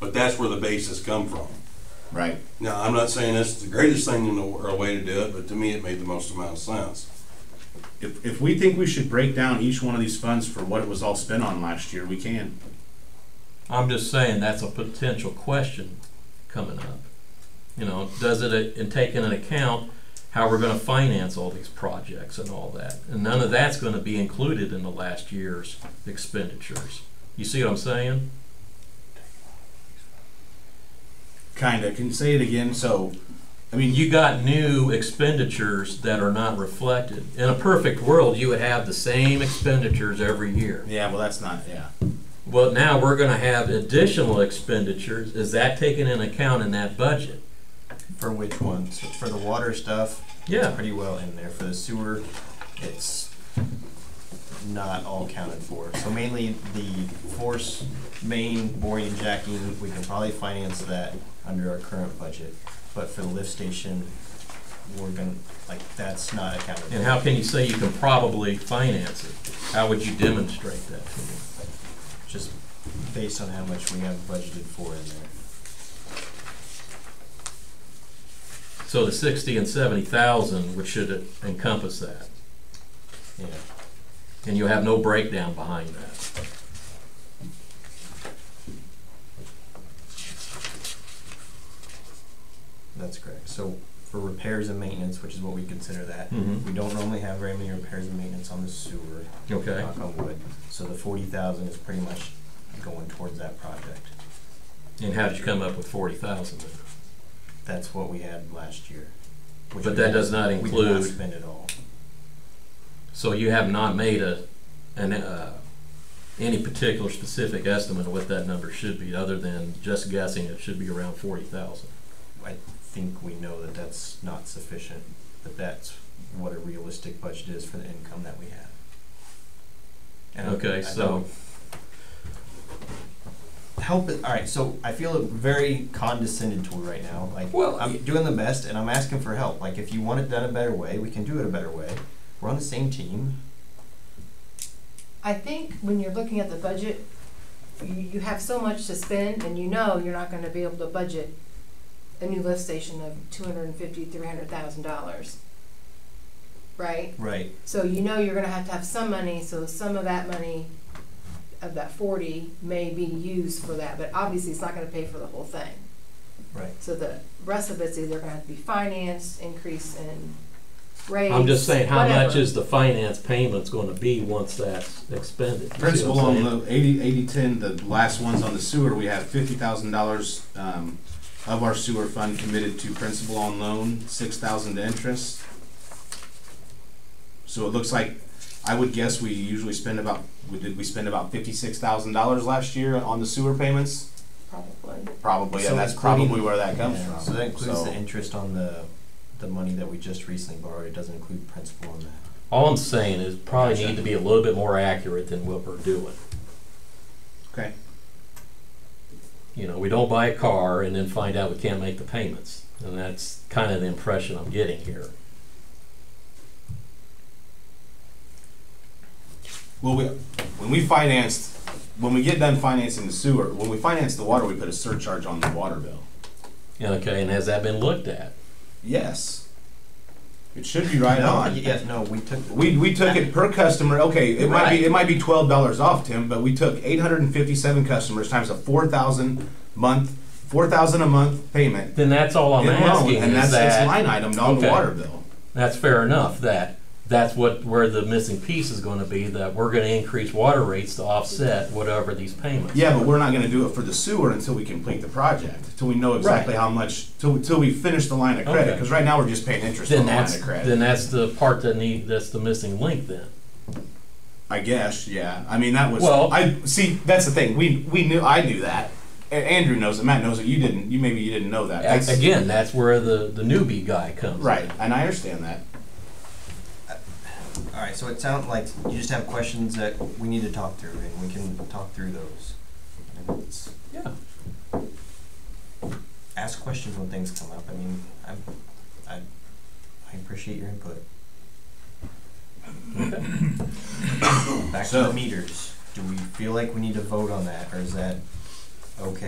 But that's where the basis come from. right? Now, I'm not saying that's the greatest thing in the world, or way to do it, but to me, it made the most amount of sense. If, if we think we should break down each one of these funds for what it was all spent on last year, we can. I'm just saying that's a potential question coming up. You know, does it, and take into account how we're gonna finance all these projects and all that. And none of that's gonna be included in the last year's expenditures. You see what I'm saying? Kinda, can you say it again? So, I mean, you, You got new expenditures that are not reflected. In a perfect world, you would have the same expenditures every year. yeah, well, that's not, yeah. Well, now we're gonna have additional expenditures. Is that taken into account in that budget? For which ones? For the water stuff, it's Yeah, pretty well in there. For the sewer, it's not all counted for. So mainly the force main boring and jacking, we can probably finance that under our current budget. But for the lift station, we're gonna, like, that's not accounted for. And how can you say you can probably finance it? How would you demonstrate that to me? Just based on how much we have budgeted for in there. So the sixty and seventy thousand, which should encompass that, Yeah. and you have no breakdown behind that. That's correct. So for repairs and maintenance, which is what we consider that, Mm-hmm. we don't normally have very many repairs and maintenance on the sewer, Okay, knock on wood. So the forty thousand is pretty much going towards that project. and how did you come up with forty thousand? That's what we had last year. which But we that does not We did not include, spend it all. so you have not made a, an, uh, any particular specific estimate of what that number should be, other than just guessing it should be around forty thousand. I think we know that that's not sufficient, but that's what a realistic budget is for the income that we have. And I- Okay, I so- know- Help it, all right, so I feel very condescended toward right now, like, Well, y- I'm doing the best and I'm asking for help, like, if you want it done a better way, we can do it a better way. We're on the same team, I think when you're looking at the budget, you, you have so much to spend and you know you're not gonna be able to budget a new lift station of two hundred and fifty, three hundred thousand dollars. Right? right, So you know you're gonna have to have some money, so some of that money, of that forty, may be used for that, but obviously it's not gonna pay for the whole thing. right. So the rest of it's either gonna have to be financed, increase in rates, I'm just saying, how much whatever. is the finance payment's gonna be once that's expended? You see what I'm Principal on saying? the eighty, eighty, ten, the last ones on the sewer, we have fifty thousand dollars, um, of our sewer fund committed to principal on loan, six thousand to interest. So it looks like, I would guess we usually spend about, we did, we spend about fifty-six thousand dollars last year on the sewer payments? Probably. Probably, So and that's including- probably where that comes Yeah, from. So that includes So- the interest on the, the money that we just recently borrowed, it doesn't include principal on that. All I'm saying is probably need to be a little bit more accurate than what we're doing. Okay. You know, we don't buy a car and then find out we can't make the payments. And that's kind of the impression I'm getting here. Well, we, when we financed, when we get done financing the sewer, when we finance the water, we put a surcharge on the water bill. And okay, and has that been looked at? Yes. It should be right no, on. Yeah, no, we took. We, we took it per customer, okay, it might be, it might be twelve dollars off, Tim, but we took eight hundred and fifty-seven customers times a four thousand month, four thousand a month payment. Then that's all I'm in loan, asking And is that's its that, line item on the Okay. water bill. that's fair enough, that, that's what, where the missing piece is gonna be, that we're gonna increase water rates to offset whatever these payments. Yeah, but we're not gonna do it for the sewer until we complete the project, until we know exactly how much, till, till we finish the line of credit, Okay. cause right now we're just paying interest on Then the line that's, of then credit. that's the part that need, that's the missing link then. I guess, yeah, I mean, that was, Well- I, see, that's the thing, we, we knew, I knew that. A- Andrew knows it, Matt knows it, you didn't, you, maybe you didn't know that. That's- Again, that's where the, the newbie guy comes. in. Right, and I understand that. All right, so it sounds like you just have questions that we need to talk through, and we can talk through those. And it's- Yeah. Ask questions when things come up. I mean, I'm, I, I appreciate your input. Back to So- the meters. Do we feel like we need to vote on that, or is that okay?